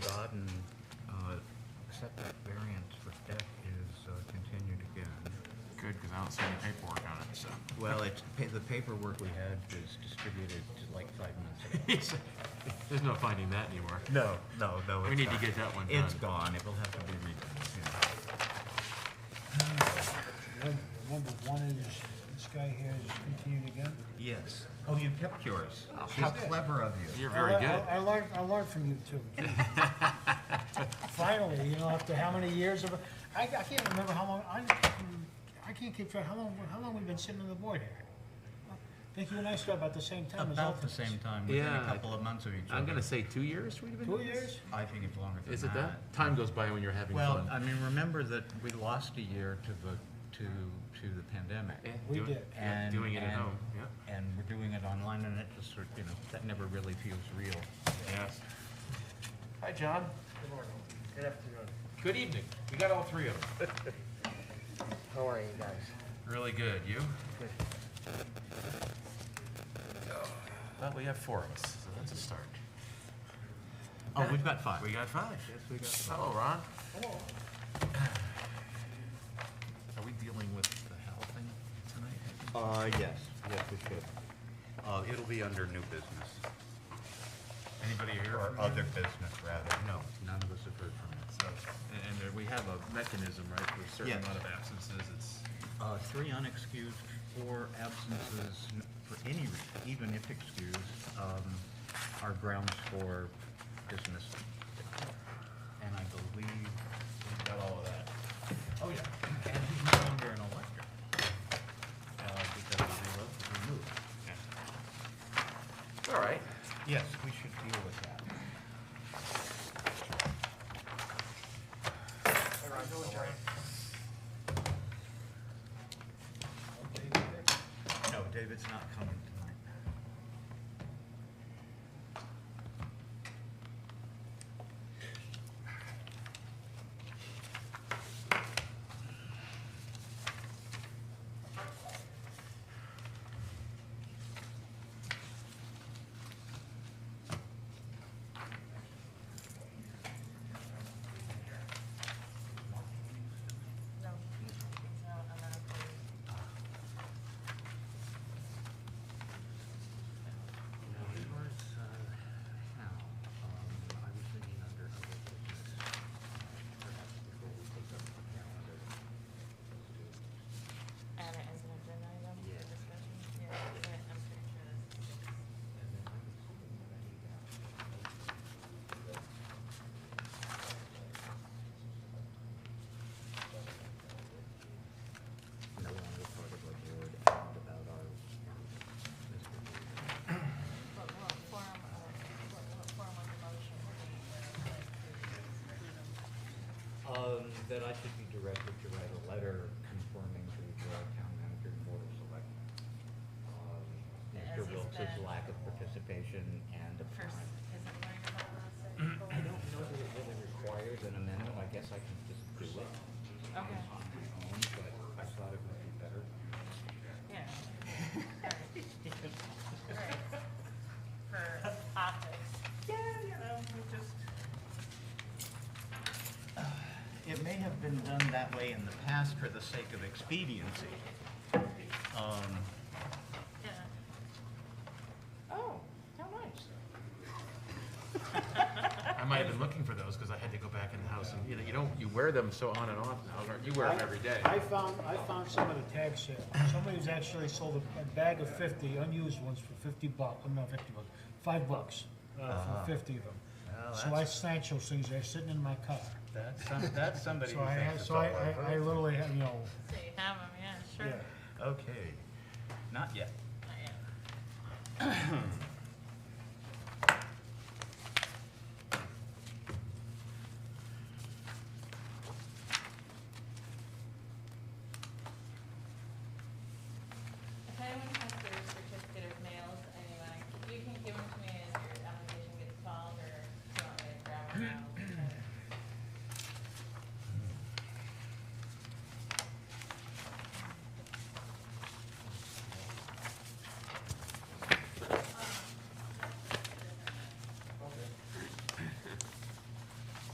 uh, don't see any paperwork on it, so. Well, it's, pa- the paperwork we had was distributed to, like five minutes ago. It's- There's no finding that anywhere. No, no, no. We it's need to gone. get that one done. It's gone, it will have to be redone. yeah. Number number one is, this guy here is continuing again. Yes. Oh, you kept yours. How she's- clever of you. Oh. You're very I le- good. I I learned, I learned from you too. Finally, you know, after how many years of, I, I can't remember how long, I, I can't keep track, how long, how long we've been sitting on the board here? I think you and I started about the same time as About the alternates. same time, within a Yeah, couple of months of each other. I'm gonna say two years we've been Two doing this? years? I think it's longer than that. Is it that? Time goes by when you're having Well, I fun. mean, remember that we lost a year to the, to, to the pandemic. Yeah, We doing- did. yeah, And- Doing it at and- home, yeah. And we're doing it online and it just sort, you know, that never really feels real. Yes. Hi, John. Good morning. Good afternoon. Good evening. We got all three of them. How are you guys? Really good. You? Good. Well, we have four of us, so that's a start. Oh, we've got five. We got five. Yes, we got five. Hello, Ron. Are we dealing with the health thing tonight? Uh, yes, yes, we should. Uh, it'll be under new business, Anybody here? or from other here? business rather. No, none of us have heard from it. So, and- and there- we have a mechanism, right, for a certain Yes. amount of absences, it's, Uh, three unexcused, four absences n- for any reason, even if excused, um, are grounds for dismissal. And I believe we've got all of that. Oh, yeah. And he's no longer an elector. Uh, because he was removed. all right. Yes, we should deal with that. No, David's not coming tonight. No, it's not a medical. No, it was, uh, how, um, I was thinking under other business, uh, perhaps before we take up the calendar. Add it as an agenda item for Yeah. discussion, yeah, but I'm pretty sure this is. And then I was thinking that he got No longer part of our board and about our, um, Mr. David. But what form of, what, what form of motion would be where like to exclude them? Um, that I should be directed to write a letter confirming to the Broward Town Manager and Board of Selectmen. um, As Mr. he's Wiltz's been- lack of participation and upon. First, is it going to I don't know that it really requires an amendment, I guess I can just do it Okay, on my own, but I thought it would be better. yeah. Alright. Right. For optics. Yeah, you know, we just. It may have been done that way in the past for the sake of expediency. Um, Yeah. Oh, how nice. I might have been looking for those, because I had to go back in the house, and you know, you don't, you wear them so on and off now, don't you You wear them every day. I found, I found some at a tag sale. Somebody's actually sold a, a bag of fifty unused ones for fifty bucks, not fifty bucks, five bucks uh, for fifty of them. So I snatched those things, they're sitting in my car. that's, some- that's somebody So who I, had- thinks it's so all I, over. I I literally, had, you know, So you have them, yeah, sure. yeah. Okay, not yet. Not yet.